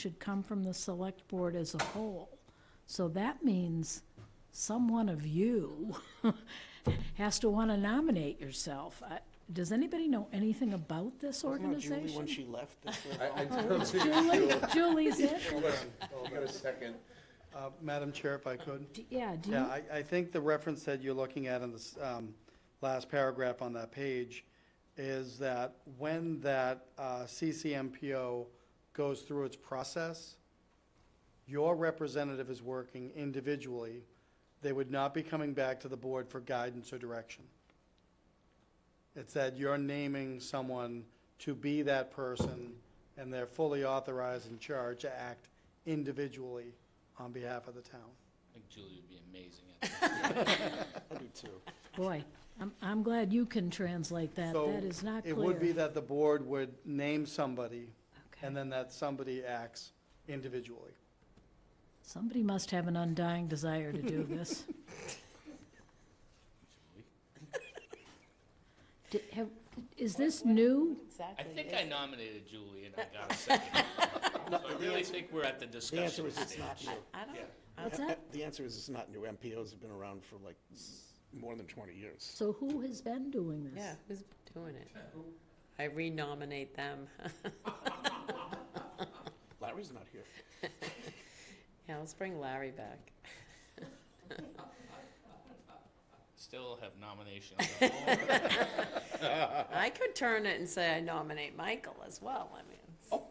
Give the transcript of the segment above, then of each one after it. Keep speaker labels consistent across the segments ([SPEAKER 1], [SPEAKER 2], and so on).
[SPEAKER 1] should come from the select board as a whole. So that means someone of you has to want to nominate yourself. I- Does anybody know anything about this
[SPEAKER 2] Wasn't that Julie
[SPEAKER 1] organization?
[SPEAKER 2] when she left this? was
[SPEAKER 3] I, I
[SPEAKER 2] all-
[SPEAKER 3] don't think
[SPEAKER 1] Julie,
[SPEAKER 3] you-
[SPEAKER 1] Julie's it?
[SPEAKER 3] Hold on, I got a second.
[SPEAKER 4] Uh, Madam Chair, if I could.
[SPEAKER 1] D- Yeah, do
[SPEAKER 4] Yeah,
[SPEAKER 1] you,
[SPEAKER 4] I, I think the reference that you're looking at in this um, last paragraph on that page is that when that uh, CCMPO goes through its process, your representative is working individually. They would not be coming back to the board for guidance or direction. It's that you're naming someone to be that person, and they're fully authorized and charged to act individually on behalf of the town.
[SPEAKER 5] I think Julie would be amazing at that.
[SPEAKER 2] I do too.
[SPEAKER 1] boy, I'm, I'm glad you can translate that.
[SPEAKER 4] So
[SPEAKER 1] That is not clear.
[SPEAKER 4] It would be that the board would name somebody,
[SPEAKER 1] Okay.
[SPEAKER 4] and then that somebody acts individually.
[SPEAKER 1] Somebody must have an undying desire to do this. Di- have- Is this new?
[SPEAKER 5] I
[SPEAKER 6] Exactly.
[SPEAKER 5] think I nominated Julie and I got a second. So I really think we're at the
[SPEAKER 2] The answer
[SPEAKER 5] discussion
[SPEAKER 2] is it's
[SPEAKER 5] stage.
[SPEAKER 2] not new.
[SPEAKER 6] I don't,
[SPEAKER 1] What's
[SPEAKER 2] Uh,
[SPEAKER 1] that?
[SPEAKER 2] The answer is it's not new. MPOs have been around for like more than 20 years.
[SPEAKER 1] So who has been doing this?
[SPEAKER 6] yeah, who's doing it? I renominate them.
[SPEAKER 2] Larry's not here.
[SPEAKER 6] Yeah, let's bring Larry back.
[SPEAKER 5] Still have nominations. on all of them.
[SPEAKER 6] I could turn it and say I nominate Michael as well, I mean,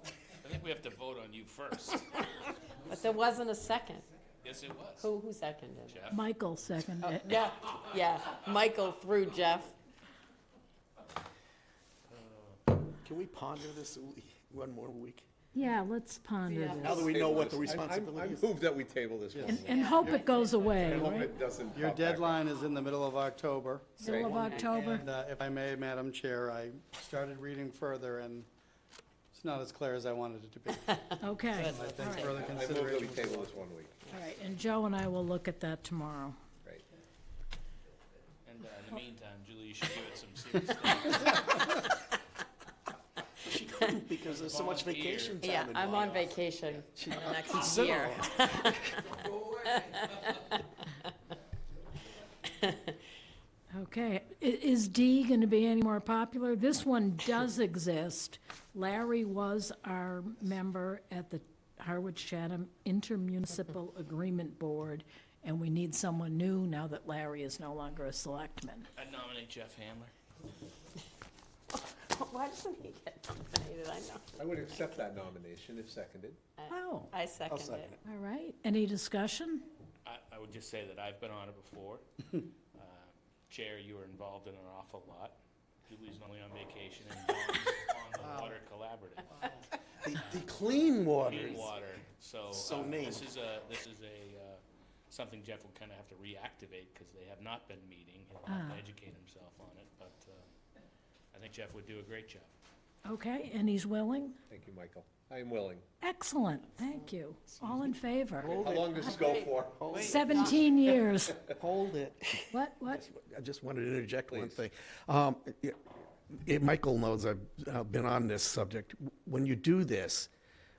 [SPEAKER 5] I think we have to vote on you first.
[SPEAKER 6] but there wasn't a second.
[SPEAKER 5] Yes, it was.
[SPEAKER 6] Who, who seconded?
[SPEAKER 5] Jeff.
[SPEAKER 1] Michael seconded it.
[SPEAKER 6] Yeah, yeah, Michael through Jeff.
[SPEAKER 2] Can we ponder this a wee- one more week?
[SPEAKER 1] Yeah, let's ponder
[SPEAKER 6] Yeah.
[SPEAKER 2] Now that
[SPEAKER 1] this.
[SPEAKER 2] we know
[SPEAKER 3] Table
[SPEAKER 2] what the
[SPEAKER 3] this. I- I'm-
[SPEAKER 2] responsibility is.
[SPEAKER 3] I move that we table this one.
[SPEAKER 1] And- And hope it goes
[SPEAKER 3] I
[SPEAKER 1] away,
[SPEAKER 3] hope
[SPEAKER 1] right?
[SPEAKER 3] it doesn't.
[SPEAKER 4] Your
[SPEAKER 3] pop back up.
[SPEAKER 4] deadline is in the middle of October,
[SPEAKER 1] Middle of October.
[SPEAKER 4] and uh, if I may, Madam Chair, I started reading further, and it's not as clear as I wanted it to be.
[SPEAKER 1] Okay,
[SPEAKER 4] I think further
[SPEAKER 3] I move that we
[SPEAKER 4] consideration.
[SPEAKER 3] table this one week,
[SPEAKER 1] all right. And Joe and I will look at that tomorrow.
[SPEAKER 3] right?
[SPEAKER 5] And uh, in the meantime, Julie, you should give it some serious thought.
[SPEAKER 2] She couldn't because there's so much
[SPEAKER 5] Volunteer.
[SPEAKER 2] vacation time
[SPEAKER 6] Yeah,
[SPEAKER 2] involved.
[SPEAKER 6] I'm on vacation for the next year.
[SPEAKER 1] Okay, i- is D gonna be any more popular? This one does exist. Larry was our member at the Harwich Chatham Intermunicipal Agreement Board, and we need someone new now that Larry is no longer a selectman.
[SPEAKER 5] I'd nominate Jeff Handler.
[SPEAKER 6] Why doesn't he get nominated? I know.
[SPEAKER 3] I would accept that nomination if seconded.
[SPEAKER 1] Oh,
[SPEAKER 6] I second
[SPEAKER 2] second
[SPEAKER 6] it.
[SPEAKER 2] it.
[SPEAKER 1] all right. Any discussion?
[SPEAKER 5] I, I would just say that I've been on it before. Uh, Chair, you were involved in an awful lot. Julie's normally on vacation and Don's on the Water Collaborative.
[SPEAKER 2] The the clean water.
[SPEAKER 5] Clean water, so.
[SPEAKER 2] So
[SPEAKER 5] uh, This
[SPEAKER 2] named.
[SPEAKER 5] is a, this is a, uh, something Jeff will kind of have to reactivate because they have not been meeting. He'll have to educate himself on it, but uh, I think Jeff would do a great job.
[SPEAKER 1] Okay, and he's willing?
[SPEAKER 3] Thank you, Michael. I am willing.
[SPEAKER 1] Excellent, thank you. All in favor?
[SPEAKER 3] How long does this go for?
[SPEAKER 1] Seventeen years.
[SPEAKER 2] Hold it.
[SPEAKER 1] What, what?
[SPEAKER 2] I just wanted to interject one thing. Um, yeah, yeah, Michael knows I've uh, been on this subject. When you do this,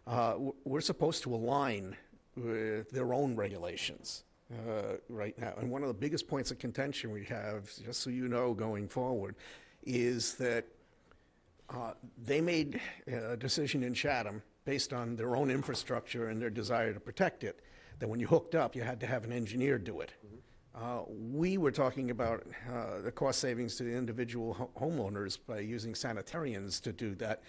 [SPEAKER 2] uh, w- we're supposed to align with their own regulations uh, right now. And one of the biggest points of contention we have, just so you know, going forward, is that uh, they made uh, a decision in Chatham based on their own infrastructure and their desire to protect it, that when you hooked up, you had to have an engineer do it. Uh, We were talking about uh, the cost savings to the individual ho- homeowners by using sanitarians to do that.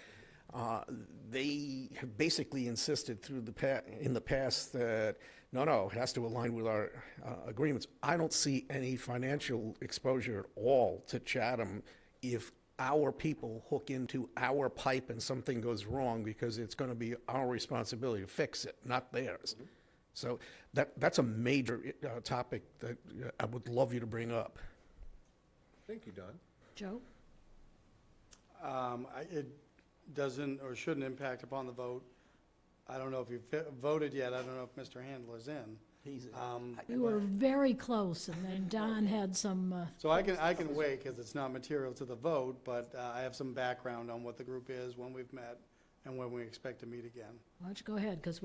[SPEAKER 2] Uh, They have basically insisted through the, pa- in the past that, no, no, it has to align with our uh, agreements. I don't see any financial exposure at all to Chatham if our people hook into our pipe and something goes wrong because it's going to be our responsibility to fix it, not theirs. So that, that's a major uh, topic that uh, I would love you to bring up.
[SPEAKER 3] Thank you, Don.
[SPEAKER 1] Joe?
[SPEAKER 4] Um, I- It doesn't or shouldn't impact upon the vote. I don't know if you've fi- voted yet, I don't know if Mr. Handler's in.
[SPEAKER 2] He's in.
[SPEAKER 4] Um,
[SPEAKER 1] We were very close, and then Don had some, uh,
[SPEAKER 4] So I can, I can wait, because it's not material to the vote, but uh, I have some background on what the group is, when we've met,
[SPEAKER 7] and when we expect to meet again.
[SPEAKER 4] Why don't you go ahead, because